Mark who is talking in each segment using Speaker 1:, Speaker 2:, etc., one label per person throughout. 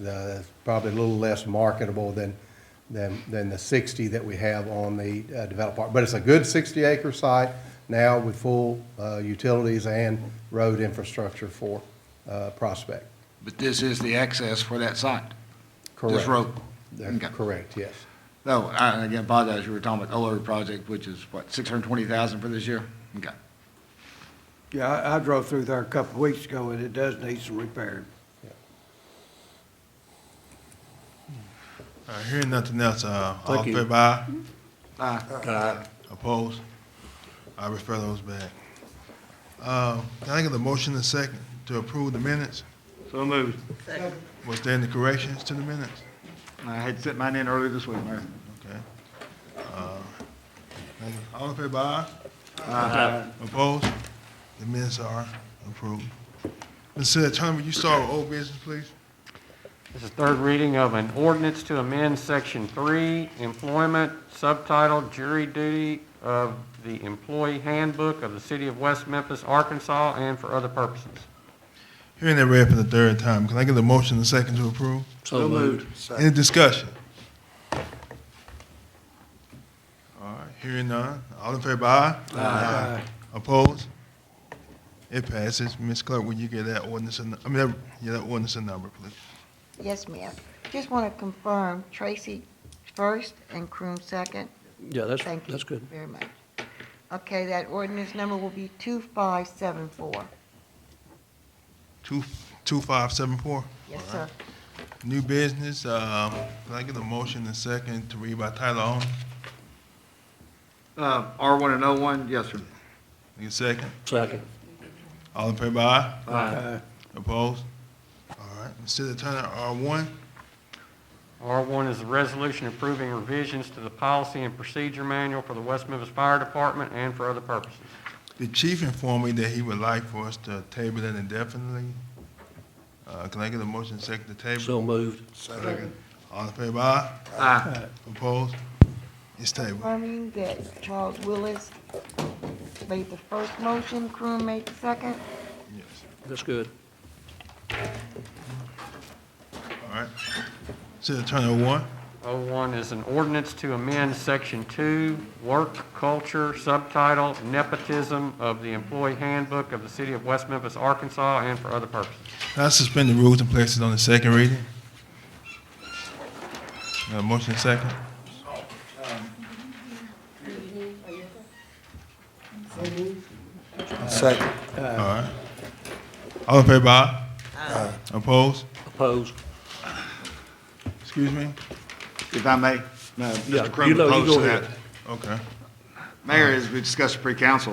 Speaker 1: The- That's probably a little less marketable than, than, than the sixty that we have on the uh, developed part. But it's a good sixty acre site now with full uh, utilities and road infrastructure for uh, Prospect.
Speaker 2: But this is the access for that site?
Speaker 1: Correct.
Speaker 2: This road?
Speaker 1: That's
Speaker 2: Okay.
Speaker 1: Correct, yes.
Speaker 2: No, I, again, apologize, you were talking about Oler project, which is what, six hundred and twenty thousand for this year? Okay.
Speaker 3: Yeah, I, I drove through there a couple of weeks ago, and it does need some repair.
Speaker 4: Uh, Hearing nothing else, uh, all
Speaker 3: Thank you.
Speaker 4: in favor, aye?
Speaker 2: Aye.
Speaker 4: Opposed? I refer those back. Uh, Can I get a motion and second to approve the minutes?
Speaker 2: So moved.
Speaker 4: Was there any corrections to the minutes?
Speaker 2: I had sent mine in earlier this week, Mayor.
Speaker 4: Okay. Uh, All in favor, aye? Opposed? The minutes are approved. Mr. City Attorney, will you start with old business, please?
Speaker 5: This is third reading of an ordinance to amend Section 3, Employment, Subtitle, Jury Duty of the Employee Handbook of the City of West Memphis, Arkansas, and for other purposes.
Speaker 4: Hearing that read for the third time, can I get a motion and second to approve?
Speaker 3: So moved.
Speaker 4: Any discussion? All right, hearing none. All in favor, aye? Aye. Opposed? It passes. Ms. Clerk, will you get that ordinance, a nu- I mean, that- yeah, that ordinance a number, please?
Speaker 6: Yes, ma'am. Just want to confirm Tracy first and Croom second.
Speaker 7: Yeah, that's,
Speaker 6: Thank you.
Speaker 7: that's good.
Speaker 6: Very much. Okay, that ordinance number will be 2574.
Speaker 4: Two, two five seven four.
Speaker 6: Yes, sir.
Speaker 4: New business, um, can I get a motion and second to read by title only?
Speaker 2: Uh, R one and O one, yes, sir.
Speaker 4: Need a second?
Speaker 7: Second.
Speaker 4: All in favor, aye?
Speaker 3: Aye.
Speaker 4: Opposed? All right, Ms. City Attorney, R one?
Speaker 5: R1 is a resolution approving revisions to the Policy and Procedure Manual for the West Memphis Fire Department and for other purposes.
Speaker 4: The chief informed me that he would like for us to table it indefinitely. Uh, can I get a motion second to table?
Speaker 7: So moved.
Speaker 4: All in favor, aye?
Speaker 2: Aye.
Speaker 4: Opposed? It's tabled.
Speaker 6: Confirming that Charles Willis made the first motion, Croom made the second.
Speaker 4: Yes.
Speaker 7: That's good.
Speaker 4: All right. City Attorney one,
Speaker 5: O1 is an ordinance to amend Section 2, Work Culture, Subtitle, Nepotism of the Employee Handbook of the City of West Memphis, Arkansas, and for other purposes.
Speaker 4: can I suspend the rules and place it on the second reading? Got a motion second?
Speaker 3: Second.
Speaker 4: All right. All in favor, aye? Aye. Opposed?
Speaker 7: Opposed?
Speaker 4: Excuse me?
Speaker 2: If I may, uh, no,
Speaker 7: Yeah,
Speaker 2: Mr.
Speaker 7: you
Speaker 2: Crum
Speaker 7: know, you
Speaker 2: opposed
Speaker 7: go
Speaker 2: to that.
Speaker 7: ahead.
Speaker 4: Okay.
Speaker 2: Mayor, as we discussed pre-council,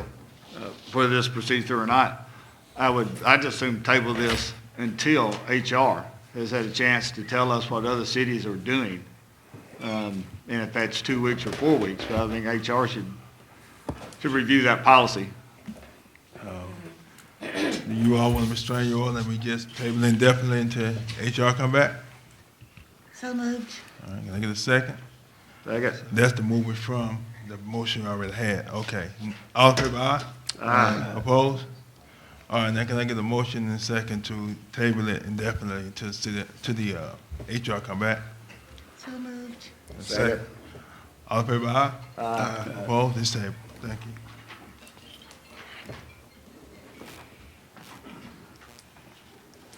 Speaker 2: uh, whether this proceeds through or not, I would, I just assume table this until HR has had a chance to tell us what other cities are doing. Um, And if that's two weeks or four weeks, but I think HR should, should review that policy.
Speaker 4: Do you all want to restrain your order and we just table it indefinitely until HR come back?
Speaker 6: So moved.
Speaker 4: All right, can I get a second?
Speaker 2: I guess.
Speaker 4: That's the movement from the motion we already had. Okay. All in favor, aye? Aye. Opposed? All right, now can I get a motion and second to table it indefinitely to, to the, to the, uh, HR come back?
Speaker 6: So moved.
Speaker 4: A Second. All ah? in favor, aye? Aye. Opposed? It's tabled. Thank you.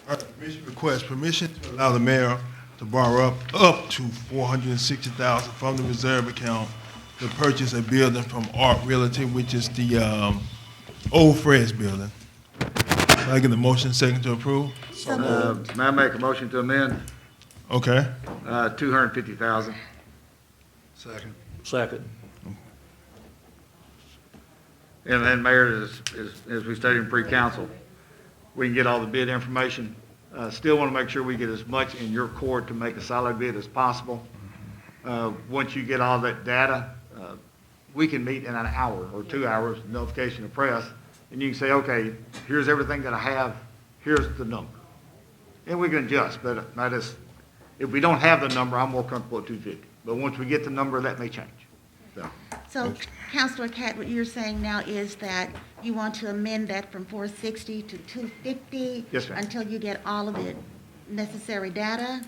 Speaker 4: All right, permission request, permission to allow the mayor to borrow up, up to four hundred and sixty thousand from the reserve account to purchase a building from Art Realty, which is the, um, old Fred's building. Can I get a motion second to approve?
Speaker 2: Uh, May I make a motion to amend
Speaker 4: Okay,
Speaker 2: uh, 250,000?
Speaker 7: Second.
Speaker 2: And then, Mayor, as, as- as we stated in pre-council, we can get all the bid information. Uh, Still want to make sure we get as much in your court to make a solid bid as possible. Uh, Once you get all that data, uh, we can meet in an hour or two hours, notification of press, and you can say, okay, here's everything that I have, here's the number. And we can adjust, but I just, if we don't have the number, I'm more comfortable at 250. But once we get the number, that may change. So,
Speaker 8: So, Counselor Cat, what you're saying now is that you want to amend that from 460 to 250?
Speaker 2: Yes, ma'am.
Speaker 8: Until you get all of the necessary data?